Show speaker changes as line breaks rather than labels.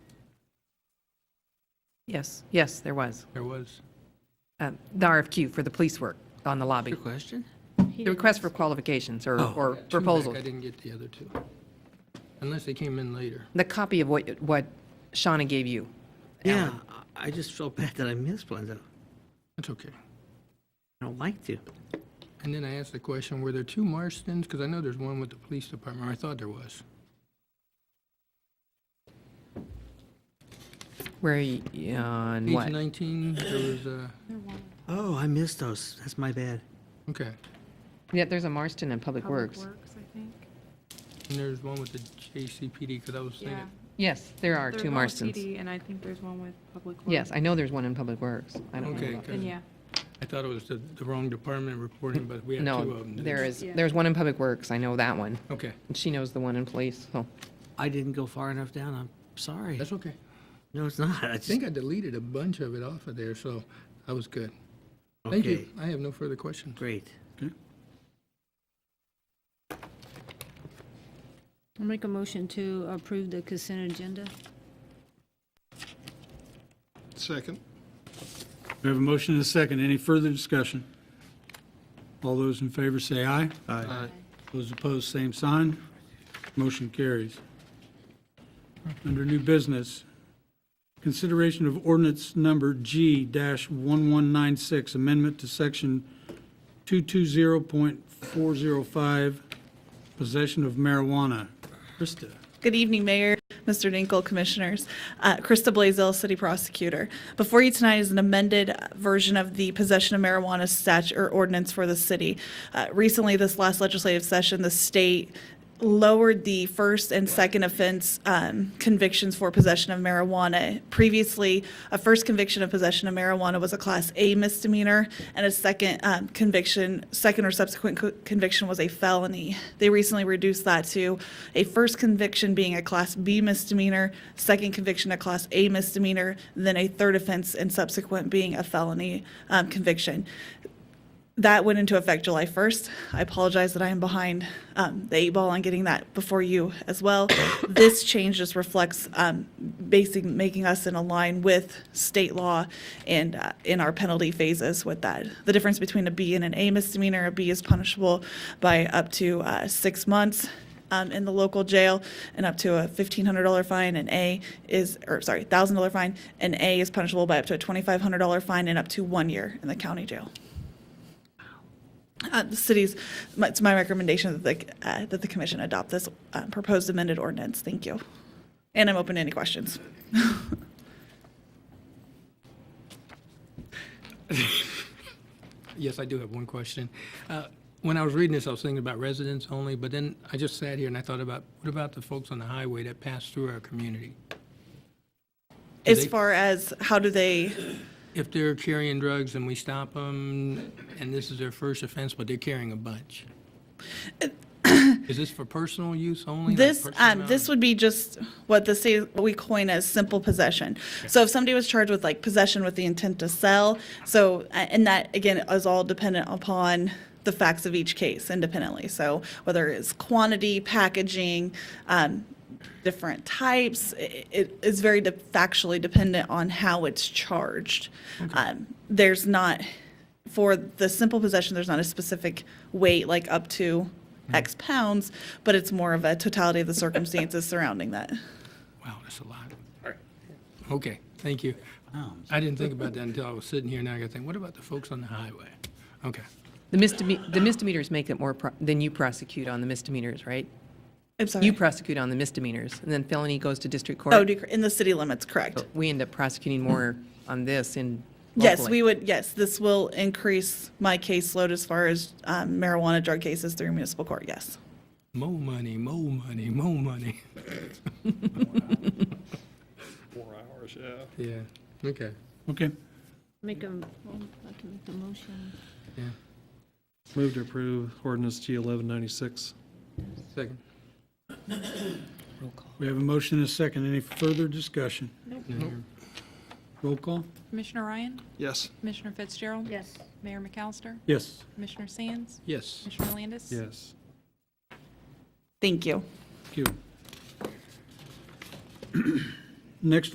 Yes, yes, there was.
There was.
Um, The RFQ for the police work on the lobby.
Your question?
The request for qualifications or or
Two back,
proposals.
I didn't get the other two, unless they came in later.
The copy of what what Shauna gave you.
Yeah, I I just felt bad that I missed one, though.
That's okay.
I don't like to.
And then I asked the question, were there two Marstons? Because I know there's one with the police department, or I thought there was.
Where, you- on
Page
what?
19, there was uh, a,
Oh, I missed those. That's my bad.
okay.
Yeah, there's a Marston in Public Works.
I think.
And there's one with the JCPD, because I was
Yeah.
thinking,
Yes, there are
There's
two
one with
Marstons.
PD, And I think there's one with Public Works.
Yes, I know there's one in Public Works. I don't
Okay,
know. about-
good.
Then, yeah.
I thought it was the the wrong department reporting, but we had two of
No,
them.
there is,
Yeah.
there's one in Public Works. I know that one.
Okay,
And She knows the one in police, so.
I didn't go far enough down. I'm sorry.
that's okay.
No, it's not. I
I
just,
think I deleted a bunch of it off of there, so I was good. Thank you.
Okay.
I have no further questions.
great.
I'll make a motion to approve the consent agenda.
Second.
We have a motion and a second. Any further discussion? All those in favor say aye. Aye. Those opposed, same sign. Motion carries. Under new business, consideration of ordinance number G-1196, amendment to section 220.405, possession of marijuana. Krista.
Good evening, Mayor, Mr. Dinkle, Commissioners. Uh, Krista Blazell, City Prosecutor. Before you tonight is an amended uh, version of the possession of marijuana statute or ordinance for the city. Uh, Recently, this last legislative session, the state lowered the first and second offense um, convictions for possession of marijuana. Previously, a first conviction of possession of marijuana was a Class A misdemeanor, and a second um, conviction, second or subsequent co- conviction was a felony. They recently reduced that to a first conviction being a Class B misdemeanor, second conviction a Class A misdemeanor, then a third offense and subsequent being a felony um, conviction that went into effect July 1st. I apologize that I am behind um, the eight ball on getting that before you as well. This change just reflects um, basic, making us in a line with state law and uh, in our penalty phases with that. The difference between a B and an A misdemeanor, a B is punishable by up to uh, six months um, in the local jail and up to a $1,500 fine. An A is, or sorry, $1,000 fine. An A is punishable by up to a $2,500 fine and up to one year in the county jail. Uh, The city's, my- it's my recommendation that the, uh, that the commission adopt this uh, proposed amended ordinance. Thank you. And I'm open to any questions.
Yes, I do have one question. Uh, When I was reading this, I was thinking about residents only, but then I just sat here and I thought about, what about the folks on the highway that pass through our community?
As
they-
far as how do they,
If they're carrying drugs and we stop them, and this is their first offense, but they're carrying a bunch? Is this for personal use only? like
this,
personal
um, this
amount?
would be just what the state, what we coin as simple possession. So if somebody was charged with like possession with the intent to sell, so, a- and that again is all dependent upon the facts of each case independently. So whether it's quantity, packaging, um, different types. I- It is very de- factually dependent on how it's charged. Um, There's not, for the simple possession, there's not a specific weight, like up to X pounds, but it's more of a totality of the circumstances surrounding that.
Wow, that's a lot. Okay, thank you. I didn't think about that until I was sitting here, now I gotta think, what about the folks on the highway? Okay,
The misdeme- the misdemeanors make it more, pro- then you prosecute on the misdemeanors, right?
I'm
You
sorry.
prosecute on the misdemeanors, and then felony goes to district court.
Oh, dec- in the city limits, correct.
We end up prosecuting more on this in Oh,
Yes,
locally.
we would, yes, this will increase my caseload as far as um, marijuana drug cases through municipal court, yes.
more money, more money, more money.
Four hours, yeah.
Yeah, okay.
Okay.
Make a, well, I can make a motion.
Move to approve ordinance G eleven ninety-six.
Second.
We have a motion and a second. Any further discussion?
Nope.
Roll call?
Commissioner Ryan?
Yes.
Commissioner Fitzgerald?
Yes.
Mayor McAllister?
Yes.
Commissioner Sands?
Yes.
Commissioner Landis?
Yes.
Thank you.
Thank you. Next